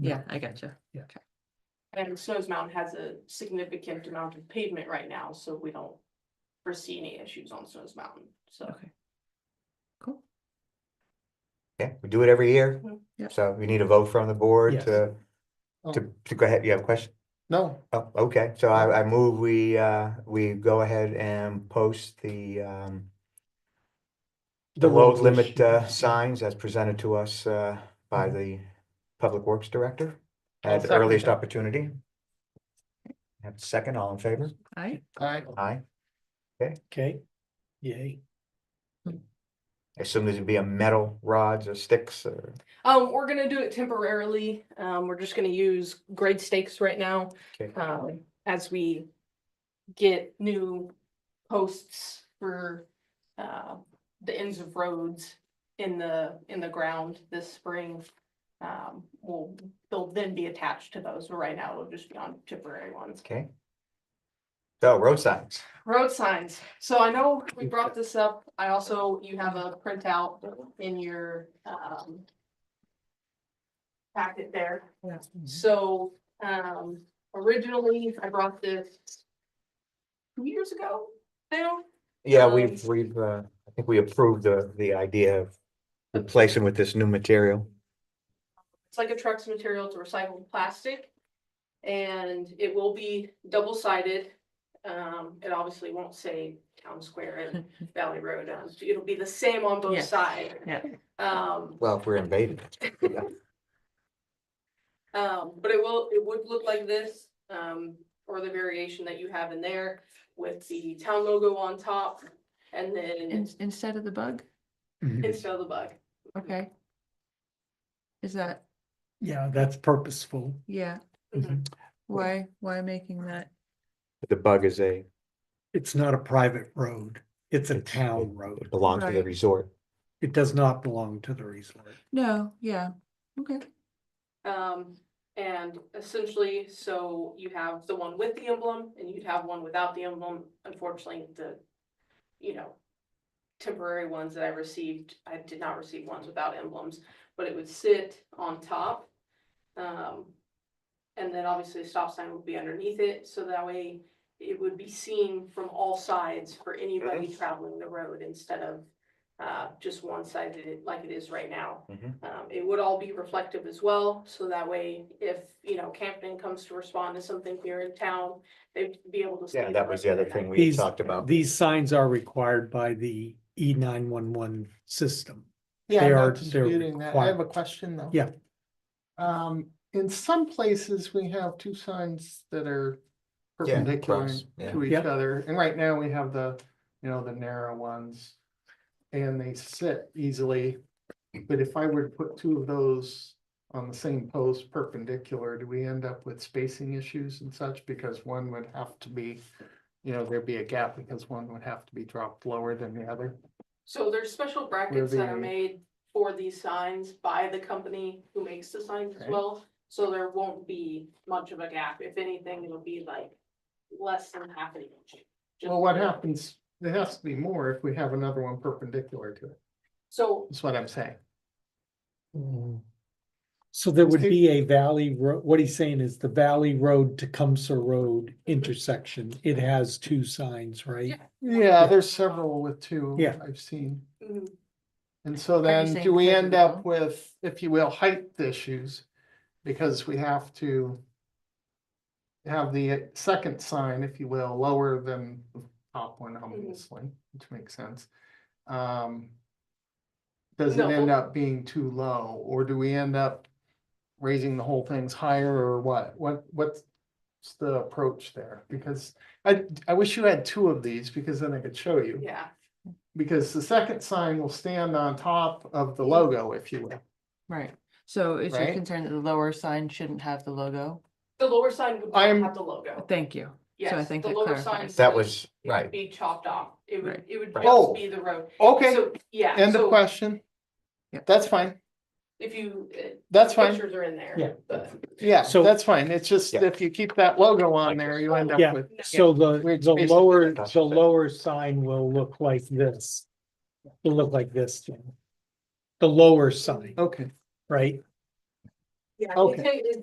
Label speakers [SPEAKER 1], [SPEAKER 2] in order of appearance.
[SPEAKER 1] Yeah, I gotcha.
[SPEAKER 2] And Snows Mountain has a significant amount of pavement right now, so we don't foresee any issues on Snows Mountain, so.
[SPEAKER 1] Okay. Cool.
[SPEAKER 3] Yeah, we do it every year.
[SPEAKER 4] Mm-hmm.
[SPEAKER 2] Mhm.
[SPEAKER 1] Yeah.
[SPEAKER 3] So we need a vote from the board
[SPEAKER 4] Yes.
[SPEAKER 3] to,
[SPEAKER 4] Oh,
[SPEAKER 3] to, to go ahead. You have a question?
[SPEAKER 4] No,
[SPEAKER 3] Oh, okay. So I, I move we, uh, we go ahead and post the, um, the load
[SPEAKER 4] road
[SPEAKER 3] limit,
[SPEAKER 4] issue.
[SPEAKER 3] uh, signs as presented to us, uh, by the Public Works Director
[SPEAKER 4] I'll
[SPEAKER 3] at the
[SPEAKER 4] second
[SPEAKER 3] earliest
[SPEAKER 4] that.
[SPEAKER 3] opportunity. Have a second, all in favor?
[SPEAKER 1] All right.
[SPEAKER 4] Alright,
[SPEAKER 3] Aye.
[SPEAKER 4] okay, yay.
[SPEAKER 3] I Assume there's gonna be a metal rods or sticks or,
[SPEAKER 2] Um, we're gonna do it temporarily, um, we're just gonna use grade stakes right now,
[SPEAKER 3] okay,
[SPEAKER 2] um, as we get new posts for, uh, the ends of roads in the, in the ground this spring. Um, will, they'll then be attached to those, but right now it'll just be on temporary ones.
[SPEAKER 3] okay. So road signs,
[SPEAKER 2] Road signs. So I know we brought this up. I also, you have a printout in your, um, packet there.
[SPEAKER 4] Mm-hmm.
[SPEAKER 2] So, um, originally I brought this two years ago now.
[SPEAKER 3] yeah,
[SPEAKER 2] Um,
[SPEAKER 3] we've, we've, uh, I think we approved the, the idea of replacing with this new material.
[SPEAKER 2] It's like a truck's material, it's recycled plastic. And it will be double sided. Um, it obviously won't say Town Square and Valley Road. um, It'll be the same on both
[SPEAKER 1] Yes.
[SPEAKER 2] sides.
[SPEAKER 1] Yeah.
[SPEAKER 2] Um,
[SPEAKER 3] Well, if we're invaded. yeah.
[SPEAKER 2] Um, but it will, it would look like this, um, or the variation that you have in there with the town logo on top. And then
[SPEAKER 1] In- Instead of the bug,
[SPEAKER 4] Mm-hmm.
[SPEAKER 2] instead of the bug,
[SPEAKER 1] okay. Is that,
[SPEAKER 4] Yeah, that's purposeful. Mm-hmm.
[SPEAKER 1] yeah, Mm-hmm.
[SPEAKER 2] Mhm.
[SPEAKER 1] why, why making that?
[SPEAKER 3] The bug is a,
[SPEAKER 4] It's not a private road, it's a
[SPEAKER 3] It's-
[SPEAKER 4] town
[SPEAKER 3] it
[SPEAKER 4] road.
[SPEAKER 3] belongs to the
[SPEAKER 1] Right.
[SPEAKER 3] resort.
[SPEAKER 4] It does not belong to the resort.
[SPEAKER 1] No, yeah, okay,
[SPEAKER 2] um, and essentially, so you have the one with the emblem and you'd have one without the emblem. Unfortunately, the, you know, temporary ones that I received, I did not receive ones without emblems, but it would sit on top. Um, and then obviously a stop sign would be underneath it, so that way it would be seen from all sides for anybody traveling the road instead of uh, just one sided like it is right now.
[SPEAKER 3] Mhm.
[SPEAKER 2] Um, it would all be reflective as well, so that way if, you know, Camden comes to respond to something here in town, they'd be able to. see
[SPEAKER 3] Yeah, that was the other thing we had
[SPEAKER 4] These-
[SPEAKER 3] talked about.
[SPEAKER 4] These signs are required by the E nine one one system.
[SPEAKER 5] Yeah,
[SPEAKER 4] They
[SPEAKER 5] I'm
[SPEAKER 4] are-
[SPEAKER 5] not
[SPEAKER 4] they're
[SPEAKER 5] disputing that. I have a
[SPEAKER 4] required.
[SPEAKER 5] question though.
[SPEAKER 4] Yeah.
[SPEAKER 5] Um, in some places, we have two signs that are perpendicular
[SPEAKER 3] cross, yeah.
[SPEAKER 5] to each
[SPEAKER 4] Yep.
[SPEAKER 5] other, and right now we have the, you know, the narrow ones. And they sit easily, but if I were to put two of those on the same post perpendicular, do we end up with spacing issues and such? Because one would have to be, you know, there'd be a gap because one would have to be dropped lower than the other.
[SPEAKER 2] So there's special brackets that are
[SPEAKER 5] the-
[SPEAKER 2] made for these signs by the company who makes the signs as
[SPEAKER 5] Okay.
[SPEAKER 2] well. So there won't be much of a gap. If anything, it'll be like less than half an inch. Just-
[SPEAKER 5] Well, what happens, there has to be more if we have another one perpendicular to it,
[SPEAKER 2] So
[SPEAKER 5] that's what I'm saying.
[SPEAKER 3] Mm-hmm.
[SPEAKER 4] So there would
[SPEAKER 5] Steve-
[SPEAKER 4] be a valley road, what he's saying is the Valley Road Tecumseh Road intersection, it has two signs, right?
[SPEAKER 1] Yeah.
[SPEAKER 5] Yeah, there's several with two.
[SPEAKER 4] Yeah.
[SPEAKER 5] I've seen,
[SPEAKER 2] mm,
[SPEAKER 5] and so then
[SPEAKER 1] saying
[SPEAKER 5] do we
[SPEAKER 1] because of
[SPEAKER 5] end
[SPEAKER 1] the
[SPEAKER 5] up
[SPEAKER 1] bump?
[SPEAKER 5] with, if you will, height issues? Because we have to. Have the second sign, if you will, lower than the top one, obviously, which makes sense. Um. Does it end
[SPEAKER 2] No.
[SPEAKER 5] up being too low, or do we end up raising the whole things higher or what? What, what's the approach there? Because I, I wish you had two of these because then I could show you.
[SPEAKER 2] yeah,
[SPEAKER 5] Because the second sign will stand on top of the logo, if you will.
[SPEAKER 1] right. So is your
[SPEAKER 5] Right.
[SPEAKER 1] concern that the lower sign shouldn't have the logo?
[SPEAKER 2] the lower sign would
[SPEAKER 5] I'm-
[SPEAKER 2] have the logo.
[SPEAKER 1] Thank you. So I
[SPEAKER 2] Yes,
[SPEAKER 1] think
[SPEAKER 2] the
[SPEAKER 1] that
[SPEAKER 2] lower sign.
[SPEAKER 1] clarifies.
[SPEAKER 3] That was,
[SPEAKER 2] would
[SPEAKER 3] right.
[SPEAKER 2] Be chopped off. It would,
[SPEAKER 1] Right.
[SPEAKER 2] it would
[SPEAKER 3] Right.
[SPEAKER 2] just
[SPEAKER 5] Oh.
[SPEAKER 2] be the road.
[SPEAKER 5] Okay,
[SPEAKER 2] So, yeah.
[SPEAKER 5] end of
[SPEAKER 2] so
[SPEAKER 5] question.
[SPEAKER 1] Yeah.
[SPEAKER 5] That's fine.
[SPEAKER 2] If you, uh,
[SPEAKER 5] That's fine.
[SPEAKER 2] pictures are in there.
[SPEAKER 4] Yeah.
[SPEAKER 2] but-
[SPEAKER 5] Yeah,
[SPEAKER 4] So-
[SPEAKER 5] that's fine. It's just
[SPEAKER 3] Yeah.
[SPEAKER 5] if you keep that logo on
[SPEAKER 3] Like
[SPEAKER 5] there,
[SPEAKER 3] this.
[SPEAKER 5] you end
[SPEAKER 4] Yeah.
[SPEAKER 5] up with.
[SPEAKER 4] So the,
[SPEAKER 5] We're
[SPEAKER 4] the
[SPEAKER 5] basically
[SPEAKER 4] lower,
[SPEAKER 3] that's
[SPEAKER 4] the
[SPEAKER 3] it.
[SPEAKER 4] lower sign will look like this. Will look like this, Jen. The lower sign,
[SPEAKER 5] Okay,
[SPEAKER 4] right?
[SPEAKER 2] Yeah,
[SPEAKER 4] Okay.
[SPEAKER 2] it's-